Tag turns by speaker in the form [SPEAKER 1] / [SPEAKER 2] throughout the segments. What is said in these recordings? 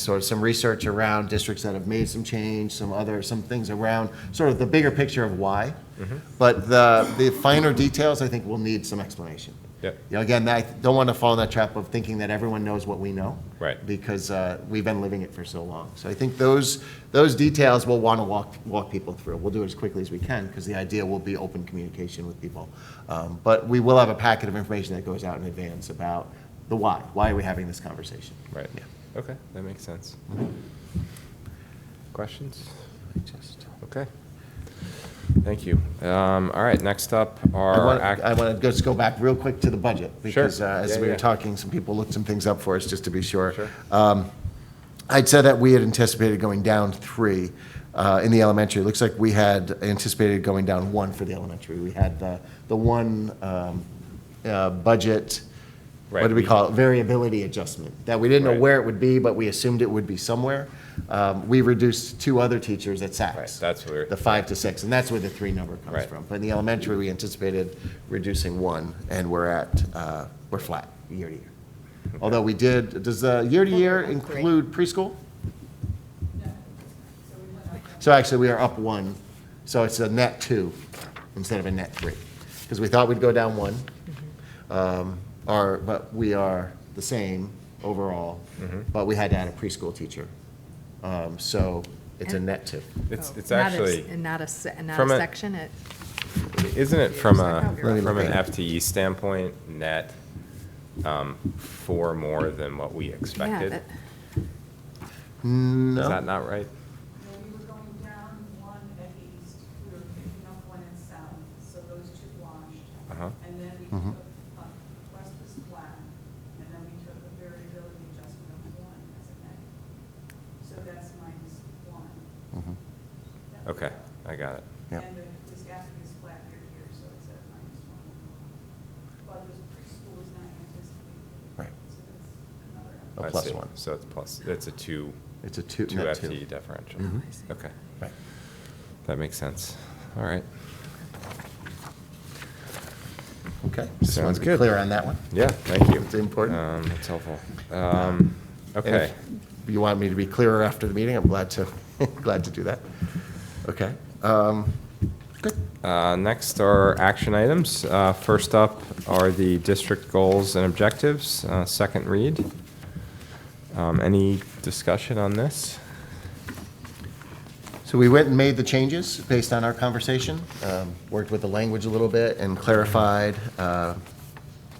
[SPEAKER 1] sort of some research around districts that have made some change, some other, some things around, sort of the bigger picture of why.
[SPEAKER 2] Mm-hmm.
[SPEAKER 1] But the, the finer details, I think, will need some explanation.
[SPEAKER 2] Yep.
[SPEAKER 1] You know, again, I don't want to fall in that trap of thinking that everyone knows what we know.
[SPEAKER 2] Right.
[SPEAKER 1] Because uh, we've been living it for so long. So I think those, those details we'll want to walk, walk people through. We'll do it as quickly as we can, because the idea will be open communication with people. Um, But we will have a packet of information that goes out in advance about the why. Why are we having this conversation?
[SPEAKER 2] Right.
[SPEAKER 1] Yeah.
[SPEAKER 2] Okay, that makes sense. Questions? Okay. Thank you. Um, all right, next up
[SPEAKER 1] I
[SPEAKER 2] are.
[SPEAKER 1] want,
[SPEAKER 2] act-
[SPEAKER 1] I want to just go back real quick to the budget. Because uh, as
[SPEAKER 2] Yeah,
[SPEAKER 1] we were
[SPEAKER 2] yeah.
[SPEAKER 1] talking, some people looked some things up for us, just to be sure.
[SPEAKER 2] Sure.
[SPEAKER 1] Um, I'd said that we had anticipated going down three uh, in the elementary. It looks like we had anticipated going down one for the elementary. We had the, the one um, uh, budget, what
[SPEAKER 2] Right,
[SPEAKER 1] do we
[SPEAKER 2] we-
[SPEAKER 1] call it, variability adjustment, that we didn't know
[SPEAKER 2] Right.
[SPEAKER 1] where it would be, but we assumed it would be somewhere. Um, We reduced two other teachers at Saks.
[SPEAKER 2] Right, that's where-
[SPEAKER 1] The five to six, and that's where the three number comes
[SPEAKER 2] Right.
[SPEAKER 1] from. But in the elementary, we anticipated reducing one, and we're at, uh, we're flat year to year. Although we did, does the year to year include preschool? So actually, we are up one, so it's a net two instead of a net three, because we thought we'd go down one. Um, Our, but we are the same overall,
[SPEAKER 2] Mm-hmm.
[SPEAKER 1] but we had to add a preschool teacher. Um, So it's a
[SPEAKER 3] And-
[SPEAKER 1] net two.
[SPEAKER 2] It's,
[SPEAKER 3] Oh,
[SPEAKER 2] it's
[SPEAKER 3] not a s-
[SPEAKER 2] actually,
[SPEAKER 3] And not a, se- and not a
[SPEAKER 2] from a-
[SPEAKER 3] section, it,
[SPEAKER 2] isn't it from
[SPEAKER 3] Let
[SPEAKER 2] a,
[SPEAKER 3] me
[SPEAKER 1] look
[SPEAKER 2] from an
[SPEAKER 1] at it.
[SPEAKER 2] FTE standpoint, net, um, four more than what we
[SPEAKER 3] yeah,
[SPEAKER 2] expected?
[SPEAKER 3] that-
[SPEAKER 2] Is
[SPEAKER 1] No,
[SPEAKER 2] that not right?
[SPEAKER 4] No, we were going down one at East, we were picking up one at South, so those two washed.
[SPEAKER 2] Uh-huh.
[SPEAKER 4] And then we
[SPEAKER 1] Mm-hmm.
[SPEAKER 4] took, up- West was flat, and then we took a variability adjustment of one as a negative. So that's minus one. That was
[SPEAKER 2] Okay,
[SPEAKER 4] up.
[SPEAKER 2] I got it.
[SPEAKER 1] Mm. Yeah.
[SPEAKER 4] And the the staffing is flat year here, so it's at minus one. But the preschool is not anticipated.
[SPEAKER 1] Right.
[SPEAKER 4] So that's another.
[SPEAKER 1] A
[SPEAKER 2] I
[SPEAKER 1] plus
[SPEAKER 2] see.
[SPEAKER 1] one.
[SPEAKER 2] So it's plus, it's a two,
[SPEAKER 1] it's a
[SPEAKER 2] two
[SPEAKER 1] two, net two. Mm-hmm.
[SPEAKER 2] FTE differential.
[SPEAKER 3] Mhm. I see.
[SPEAKER 2] Okay,
[SPEAKER 1] Right.
[SPEAKER 2] that makes sense. All right.
[SPEAKER 1] Okay, just wanted
[SPEAKER 2] Sounds
[SPEAKER 1] to be
[SPEAKER 2] good.
[SPEAKER 1] clear on that one.
[SPEAKER 2] Yeah, thank you.
[SPEAKER 1] It's important.
[SPEAKER 2] Um, It's helpful. Um,
[SPEAKER 1] And
[SPEAKER 2] Okay.
[SPEAKER 1] if You want me to be clearer after the meeting? I'm glad to, glad to do that. Okay. um, Good.
[SPEAKER 2] Uh, Next are action items. Uh, First up are the district goals and objectives, uh, second read. Um, Any discussion on this?
[SPEAKER 1] So we went and made the changes based on our conversation, um, worked with the language a little bit and clarified, uh,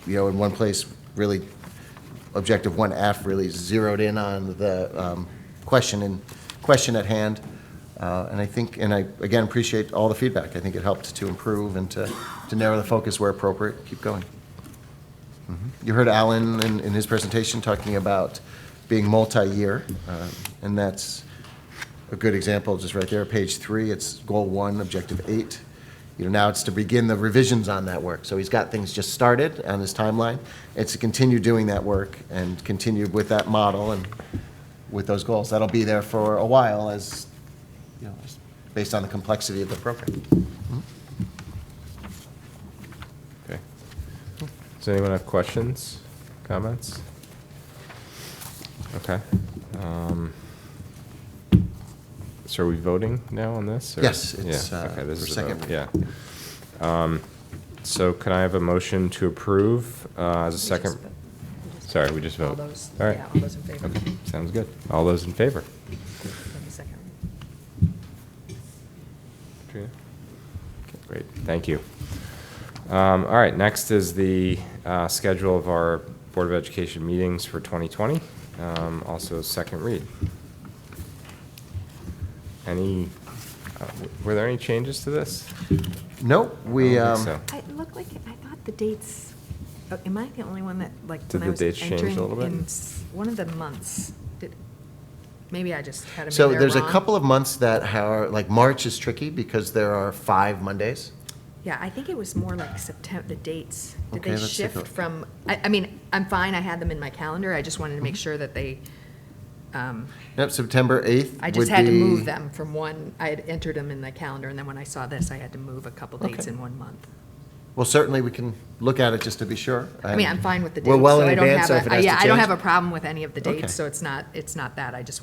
[SPEAKER 1] you know, in one place, really, objective one F really zeroed in on the um, question and, question at hand. Uh, And I think, and I, again, appreciate all the feedback. I think it helped to improve and to, to narrow the focus where appropriate. Keep going. Mm-hmm. You heard Alan in, in his presentation talking about being multi-year, uh, and that's a good example, just right there, page three, it's goal one, objective eight. You know, now it's to begin the revisions on that work. So he's got things just started on his timeline. It's to continue doing that work and continue with that model and with those goals. That'll be there for a while as, you know, as- based on the complexity of the program.
[SPEAKER 2] Okay. Does anyone have questions, comments? Okay. um, So are we voting now on this? or-
[SPEAKER 1] Yes, it's,
[SPEAKER 2] Yeah,
[SPEAKER 1] uh,
[SPEAKER 2] okay, this
[SPEAKER 1] for
[SPEAKER 2] is a vote,
[SPEAKER 1] second.
[SPEAKER 2] Yeah. Um, So can I have a motion to approve uh, as a
[SPEAKER 3] we just
[SPEAKER 2] second?
[SPEAKER 3] vote. We just
[SPEAKER 2] Sorry,
[SPEAKER 3] vote.
[SPEAKER 2] we just
[SPEAKER 3] All
[SPEAKER 2] vote.
[SPEAKER 3] those-
[SPEAKER 2] All right.
[SPEAKER 3] yeah, all those in favor.
[SPEAKER 2] Okay, sounds good. All those in favor?
[SPEAKER 3] on the second read.
[SPEAKER 2] Katrina? Okay, Great, thank you. Um, All right, next is the uh, schedule of our Board of Education meetings for 2020, um, also second read. Any, uh, w- were there any changes to this?
[SPEAKER 1] Nope, we,
[SPEAKER 2] I don't
[SPEAKER 1] um,
[SPEAKER 2] think so.
[SPEAKER 3] I, it looked like, I thought the dates, oh, am I the only one that, like,
[SPEAKER 2] Did
[SPEAKER 3] when I
[SPEAKER 2] the
[SPEAKER 3] was
[SPEAKER 2] dates change a
[SPEAKER 3] entering
[SPEAKER 2] little bit?
[SPEAKER 3] in s- One of the months, did, maybe I just had them in
[SPEAKER 1] So
[SPEAKER 3] there
[SPEAKER 1] there's a
[SPEAKER 3] wrong.
[SPEAKER 1] couple of months that are, like, March is tricky because there are five Mondays.
[SPEAKER 3] Yeah, I think it was more like September, the dates. Did
[SPEAKER 1] Okay,
[SPEAKER 3] they
[SPEAKER 1] let's take a
[SPEAKER 3] shift
[SPEAKER 1] look.
[SPEAKER 3] from, I, I mean, I'm fine, I had them in my calendar, I just wanted to make
[SPEAKER 2] Mm-hmm.
[SPEAKER 3] sure that they, um,
[SPEAKER 1] Yep, September 8th
[SPEAKER 3] I
[SPEAKER 1] would
[SPEAKER 3] just had to move
[SPEAKER 1] be-
[SPEAKER 3] them from one, I had entered them in the calendar, and then when I saw this, I had to move a couple dates in one month.
[SPEAKER 1] Well, certainly, we can look at it just to be sure.
[SPEAKER 3] I mean, I'm fine with the dates.
[SPEAKER 1] We're well
[SPEAKER 3] so
[SPEAKER 1] in
[SPEAKER 3] I don't
[SPEAKER 1] advance,
[SPEAKER 3] have
[SPEAKER 1] so
[SPEAKER 3] a-
[SPEAKER 1] if it has
[SPEAKER 3] Yeah,
[SPEAKER 1] to
[SPEAKER 3] I don't
[SPEAKER 1] change-
[SPEAKER 3] have a problem with any of the
[SPEAKER 1] Okay.
[SPEAKER 3] dates, so it's not, it's not that. I just